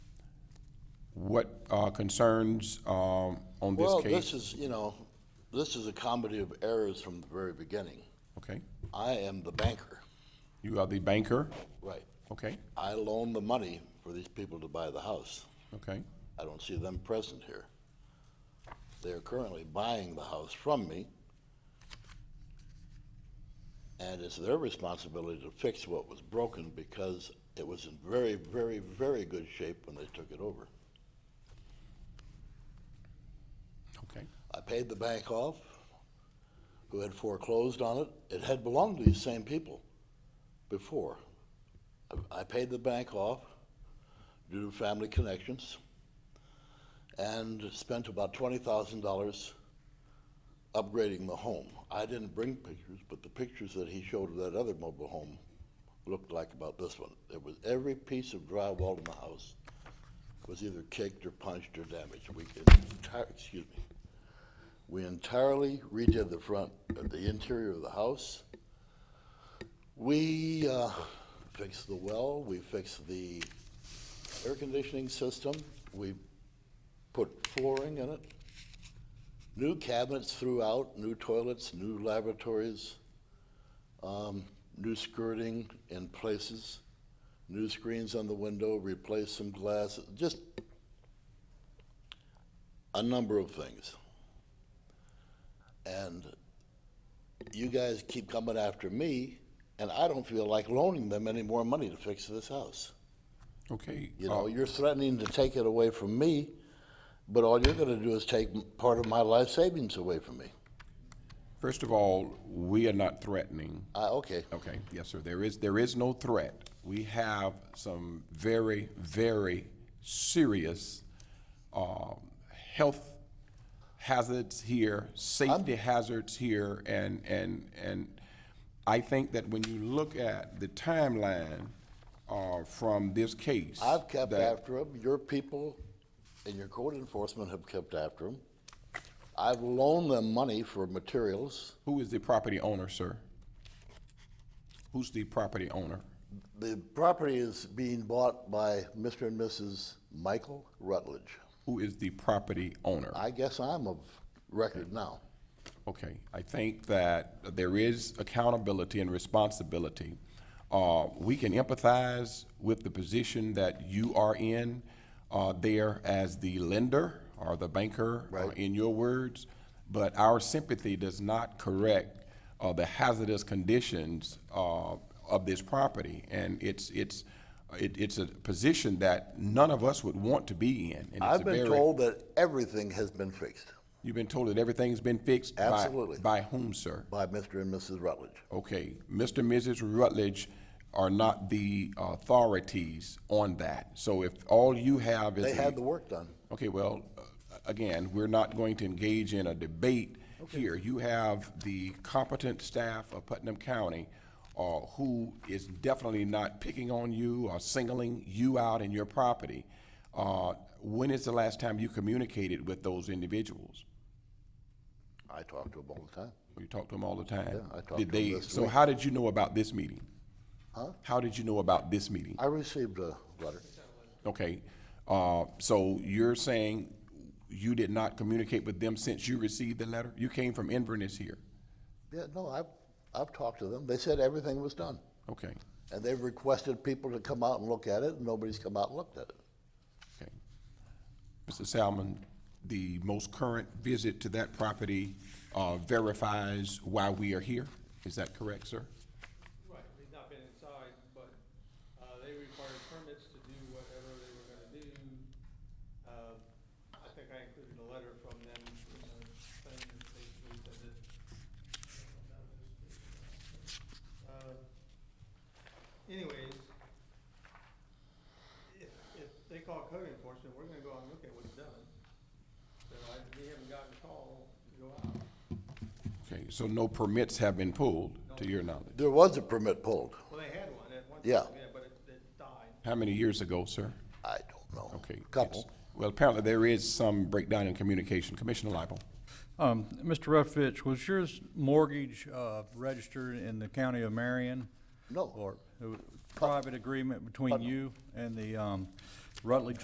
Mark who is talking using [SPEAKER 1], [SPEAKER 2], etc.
[SPEAKER 1] What uh, concerns um, on this
[SPEAKER 2] Well, this
[SPEAKER 1] case?
[SPEAKER 2] is, you know, this is a comedy of errors from the very beginning.
[SPEAKER 1] Okay,
[SPEAKER 2] I am the banker,
[SPEAKER 1] you are the banker,
[SPEAKER 2] right?
[SPEAKER 1] okay,
[SPEAKER 2] I loan the money for these people to buy the house.
[SPEAKER 1] okay,
[SPEAKER 2] I don't see them present here. They are currently buying the house from me. And it's their responsibility to fix what was broken because it was in very, very, very good shape when they took it over.
[SPEAKER 1] okay.
[SPEAKER 2] I paid the bank off, who had foreclosed on it. It had belonged to these same people before. I- I paid the bank off due to family connections and spent about $20,000 upgrading the home. I didn't bring pictures, but the pictures that he showed of that other mobile home looked like about this one. It was every piece of drywall in the house was either kicked or punched or damaged. We could, enti- excuse me. We entirely redid the front, uh, the interior of the house. We uh, fixed the well, we fixed the air conditioning system, we put flooring in it. New cabinets throughout, new toilets, new lavatories, um, new skirting in places, new screens on the window, replaced some glass, just a number of things. And you guys keep coming after me, and I don't feel like loaning them any more money to fix this house.
[SPEAKER 1] Okay.
[SPEAKER 2] You
[SPEAKER 1] uh,
[SPEAKER 2] know, you're threatening to take it away from me, but all you're going to do is take m- part of my life savings away from me.
[SPEAKER 1] First of all, we are not threatening.
[SPEAKER 2] I, okay.
[SPEAKER 1] Okay, yes, sir. There is, there is no threat. We have some very, very serious um, health hazards here, safety hazards here, and, and, and I think that when you look at the timeline uh, from this case.
[SPEAKER 2] I've kept
[SPEAKER 1] that-
[SPEAKER 2] after them. Your people and your code enforcement have kept after them. I've loaned them money for materials.
[SPEAKER 1] Who is the property owner, sir? Who's the property owner?
[SPEAKER 2] The property is being bought by Mr. and Mrs. Michael Rutledge.
[SPEAKER 1] Who is the property owner?
[SPEAKER 2] I guess I'm of record now.
[SPEAKER 1] Okay, I think that there is accountability and responsibility. Uh, we can empathize with the position that you are in, uh, there as the lender or the banker, uh,
[SPEAKER 2] Right.
[SPEAKER 1] in your words, but our sympathy does not correct, uh, the hazardous conditions, uh, of this property. And it's, it's, it, it's a position that none of us would want to be in. and it's a
[SPEAKER 2] I've been
[SPEAKER 1] very-
[SPEAKER 2] told that everything has been fixed
[SPEAKER 1] You've been told that everything's been fixed? by-
[SPEAKER 2] Absolutely.
[SPEAKER 1] By whom, sir?
[SPEAKER 2] by Mr. and Mrs. Rutledge.
[SPEAKER 1] Okay, Mr. and Mrs. Rutledge are not the uh, authorities on that. So if all you have is.
[SPEAKER 2] They
[SPEAKER 1] a-
[SPEAKER 2] had the work done.
[SPEAKER 1] Okay, well, uh, again, we're not going to engage in a debate here. You have the competent staff of Putnam County uh, who is definitely not picking on you or singling you out and your property. Uh, When is the last time you communicated with those individuals?
[SPEAKER 2] I talk to them all the time.
[SPEAKER 1] You talk to them all the time.
[SPEAKER 2] Yeah, I talk
[SPEAKER 1] Did
[SPEAKER 2] to 'em
[SPEAKER 1] they-
[SPEAKER 2] this
[SPEAKER 1] So how did you know about this meeting? Huh? How did you know about this meeting?
[SPEAKER 2] I received a letter.
[SPEAKER 1] Okay, uh, so you're saying you did not communicate with them since you received the letter? You came from Inverness here?
[SPEAKER 2] Yeah, no, I've, I've talked to them. They said everything was done.
[SPEAKER 1] Okay,
[SPEAKER 2] And they've requested people to come out and look at it, and nobody's come out and looked at it.
[SPEAKER 1] okay. Mr. Salmon, the most current visit to that property uh, verifies why we are here? Is that correct, sir?
[SPEAKER 3] Right, they've not been inside, but uh, they required permits to do whatever they were gonna do. Uh, I think I included a letter from them, you know, saying that basically that it. Uh, Anyways, if, if they call code enforcement, we're gonna go out and look at what's done. So I, we haven't gotten a call to go out.
[SPEAKER 1] Okay, so no permits have been pulled, to your knowledge?
[SPEAKER 2] There was a permit pulled.
[SPEAKER 3] Well, they had one at one time,
[SPEAKER 2] Yeah.
[SPEAKER 3] yeah, but it, it died.
[SPEAKER 1] How many years ago, sir?
[SPEAKER 2] I don't know.
[SPEAKER 1] Okay. yes.
[SPEAKER 2] Couple.
[SPEAKER 1] Well, apparently there is some breakdown in communication. Commissioner Lible?
[SPEAKER 4] Um, Mr. Ruffitch, was your mortgage, uh, registered in the county of Marion? uh,
[SPEAKER 2] No.
[SPEAKER 4] Or a private agreement between you and the, um, Rutledge